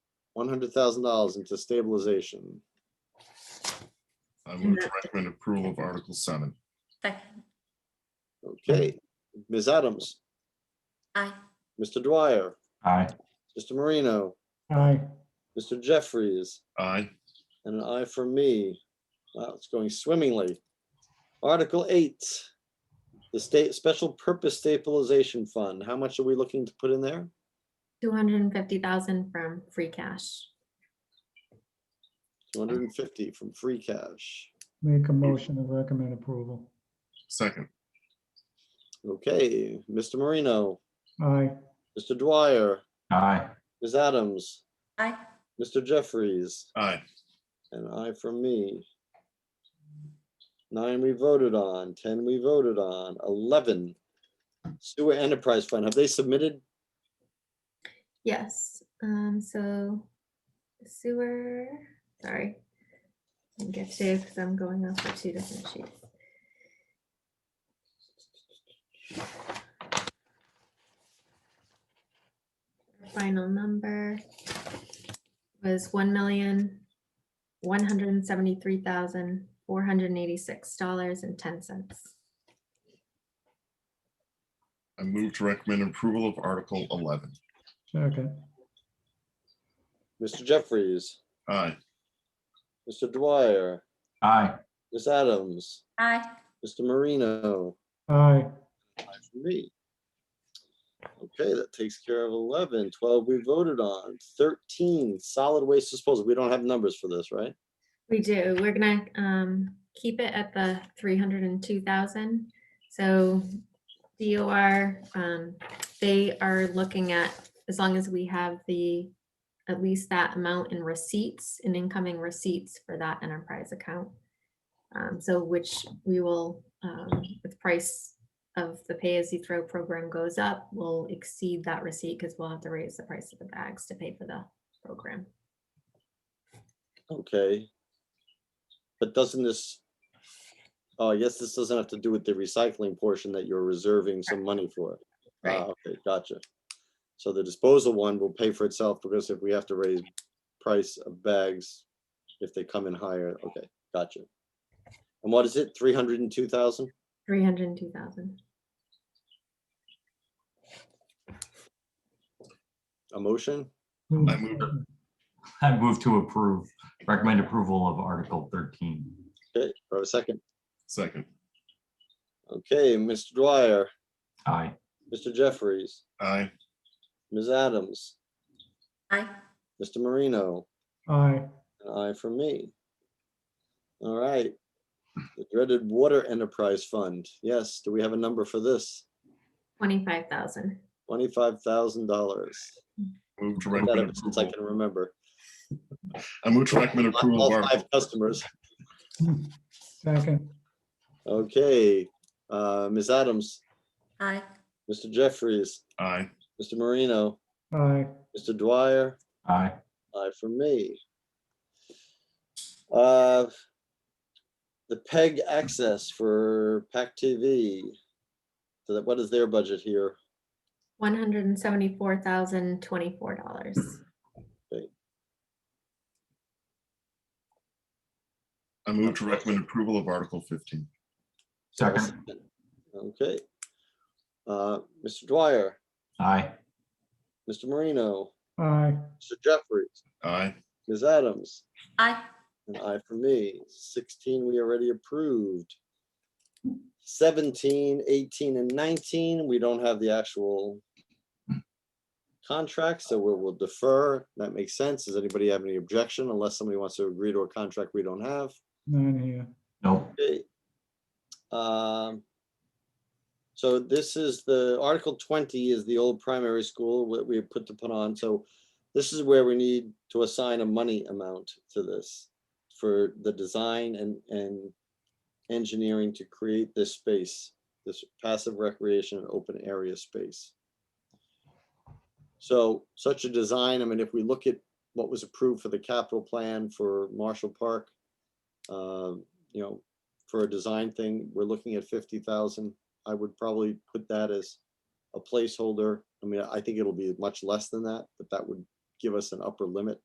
one hundred thousand dollars into stabilization. I move to recommend approval of Article seven. Second. Okay, Ms. Adams, Aye. Mr. Dwyer, Aye. Mr. Marino, Aye. Mr. Jeffries, Aye. and an aye for me. Wow, it's going swimmingly. Article eight, the state special purpose stabilization fund. How much are we looking to put in there? Two hundred and fifty thousand from free cash. Two hundred and fifty from free cash. Make a motion to recommend approval. Second. Okay, Mr. Marino, Aye, Mr. Dwyer, Aye. Ms. Adams, Aye. Mr. Jeffries, Aye. An aye from me. Nine we voted on, ten we voted on, eleven. Sewer Enterprise Fund, have they submitted? Yes, um, so sewer, sorry. Didn't get to, because I'm going off for two different sheets. Final number was one million, one hundred and seventy-three thousand, four hundred and eighty-six dollars and ten cents. I move to recommend approval of Article eleven. second, Mr. Jeffries, Aye. Mr. Dwyer, Aye. Ms. Adams, Aye. Mr. Marino, aye, aye for me. Okay, that takes care of 11. 12 we voted on, 13 solid waste disposal. We don't have numbers for this, right? We do. We're gonna um keep it at the three hundred and two thousand. So DOR, um, they are looking at, as long as we have the, at least that amount in receipts, in incoming receipts for that enterprise account. Um, so which we will, um, if the price of the pay-as-you-throw program goes up, will exceed that receipt because we'll have to raise the price of the bags to pay for the program. Okay. But doesn't this, oh, I guess this doesn't have to do with the recycling portion that you're reserving some money for. Ah, Right. Okay, gotcha. So the disposal one will pay for itself because if we have to raise price of bags, if they come in higher, okay, gotcha. And what is it, three hundred and two thousand? Three hundred and two thousand. A motion? I move. I move to approve, recommend approval of Article thirteen. Okay, for a second. Second. Okay, Mr. Dwyer, Aye. Mr. Jeffries, Aye. Ms. Adams, Aye. Mr. Marino, aye, An aye for me. All right. The dreaded water enterprise fund. Yes, do we have a number for this? Twenty-five thousand. Twenty-five thousand dollars. Move to recommend Since I approval. can remember. I move to recommend Not approval of All five Article. customers. second, Okay, uh, Ms. Adams, Aye. Mr. Jeffries, Aye. Mr. Marino, aye, Mr. Dwyer, Aye. aye for me. Uh, The PEG access for PAC TV. So that, what is their budget here? One hundred and seventy-four thousand twenty-four dollars. I move to recommend approval of Article fifteen. Second. Okay. Uh, Mr. Dwyer, Aye. Mr. Marino, aye, Mr. Jeffries, Aye. Ms. Adams, Aye. and I for me. 16, we already approved. 17, 18, and 19, we don't have the actual contract, so we'll we'll defer. That makes sense. Does anybody have any objection unless somebody wants to agree to a contract we don't have? none here, Nope. Okay. Um, So this is the, Article 20 is the old primary school that we put to put on. So this is where we need to assign a money amount to this for the design and, and engineering to create this space, this passive recreation and open area space. So such a design, I mean, if we look at what was approved for the capital plan for Marshall Park, um, you know, for a design thing, we're looking at fifty thousand. I would probably put that as a placeholder. I mean, I think it'll be much less than that, but that would give us an upper limit.